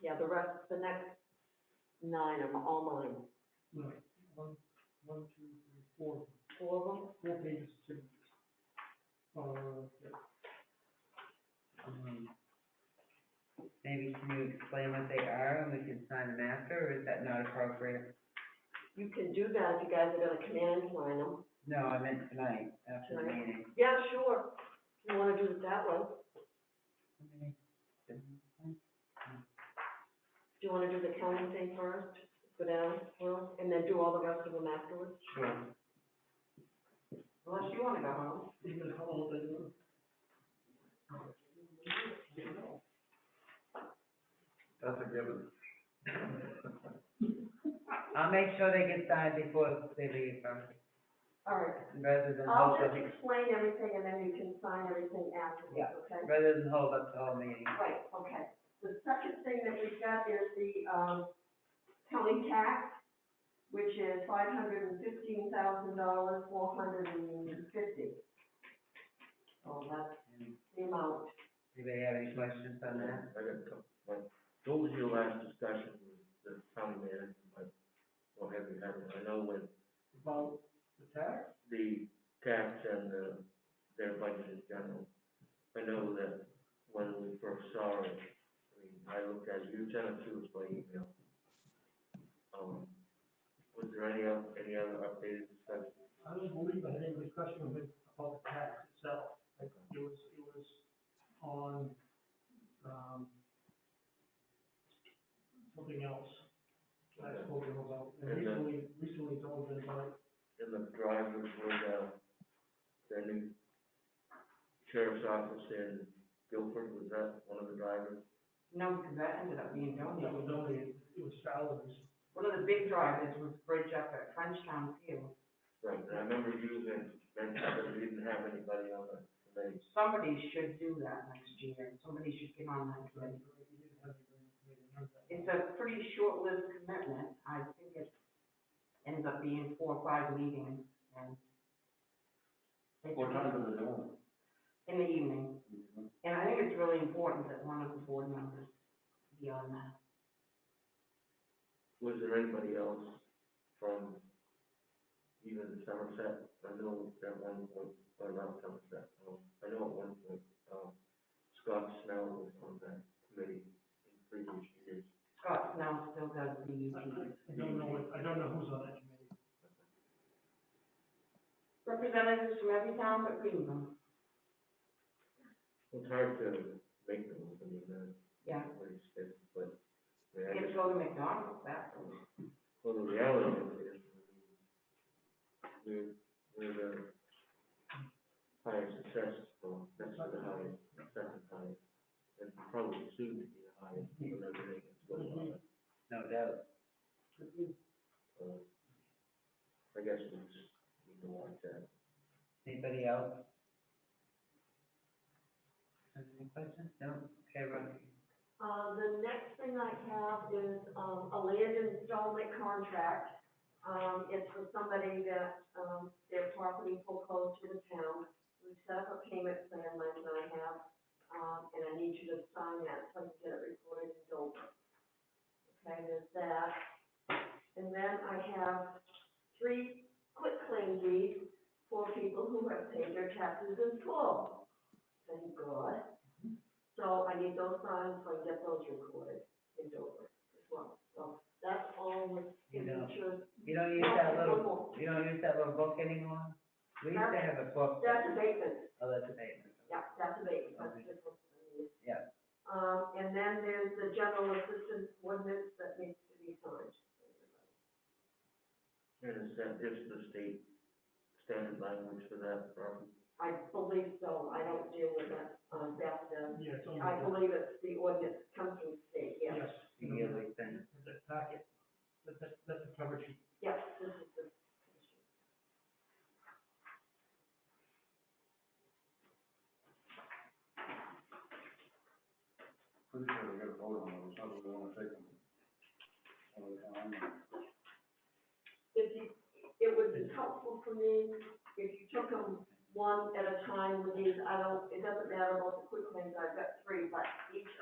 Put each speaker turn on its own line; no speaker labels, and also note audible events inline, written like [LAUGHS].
Yeah, the rest, the next nine are all mine.
Right, one, one, two, three, four,
Four of them?
four pages to, uh, yeah.
Um, Maybe can you explain what they are and we can sign them after, or is that not appropriate?
You can do that if you guys are gonna come in and sign them.
No, I meant tonight, after the
Tonight?
meeting.
Yeah, sure. You wanna do it that way? Do you wanna do the county thing first? Go down, Will, and then do all the rest of them afterwards?
Sure.
Unless you wanna go home.
You know, how old they were?
That's a given.
[LAUGHS] I'll make sure they get signed before they leave, um,
All right,
rather than
I'll
hold up,
just explain everything and then you can sign everything
Yeah.
afterwards, okay?
rather than hold up the whole meeting.
Right, okay. The second thing that we've got is the, um, county tax, which is five hundred and fifteen thousand dollars, four hundred and fifty. So that's the amount.
Anybody have any questions on that?
I got a couple, like, what was your last discussion with the county manager, like, or have you had one? I know when
About the tax?
the tax and the, their budget in general, I know that when we first saw it, I mean, I looked at, it, you sent it to us by email. Um, was there any, oth- any other updated discussion?
I don't believe I had any discussion with, about the tax itself. Like, It was, it was on, um, something else. I spoke to him about, and
Okay.
recently, recently told him about
in the drivers with, uh, the new sheriff's office in Guilford, was that one of the drivers?
No, because that ended up being
That was
donated.
only, it was salaries.
One of the big drivers was Bridge up at Frenchtown Field.
Right, and I remember you and Ben, but we didn't have anybody on the committee.
Somebody should do that next year. Somebody should get on that committee. It's a pretty short-lived commitment. I think it ends up being four or five meetings and. it's-
the door?
In the evening. And I think it's really important that one of the board members be on that.
Was there anybody else from even Somerset? I know at one point, or not Somerset, um, I know at one point, um, Scott Snell was on that committee in previous years.
Scott Snell still does the
I
UT.
I don't know, what- I don't know who's on that committee.
Representatives from every town but Greenville.
It's hard to make them, I mean, uh,
Yeah.
what he said, but, I mean, I
You get to
just-
go to McDonald's, that's.
well, the reality of it is, we're, we're the highest success, well, that's not the highest, second highest, and probably soon to be the highest, when everything is going on.
No doubt.
So, I guess we just need to watch that.
Anybody else? Any questions? No? Okay, Ron.
Uh, the next thing I have is, um, a land installment contract. Um, it's for somebody that, um, their property foreclosed to the town. We set up a payment plan, Mike and I have, um, and I need you to sign that so I can get it recorded and over. Okay, there's that. And then I have three quick claim deeds for people who have paid their taxes in full. Thank God. So I need those signed, so I can get those recorded in Dover as well. So that's all with
You know.
signatures.
You don't use that little, you don't use that little book anymore? We used to have a book.
That's abatement.
Oh, that's amazing.
Yeah, that's amazing, that's just what I need.
Yeah.
Um, and then there's the general assistance ordinance that needs to be signed.
And is that, is the state standard language for that problem?
I believe so, I don't deal with that, um, that's the,
Yeah, it's on
I
the,
believe it's the ordinance comes from state, yeah.
yes.
The yearly thing.
The packet, that, that, that's the cover sheet.
Yes, this is the.
Pretty sure we got a vote on those, how do we wanna take them? One at a time, or-
If you, it would be helpful for me if you took them one at a time with these, I don't, it doesn't matter about the quick claims, I've got three, but each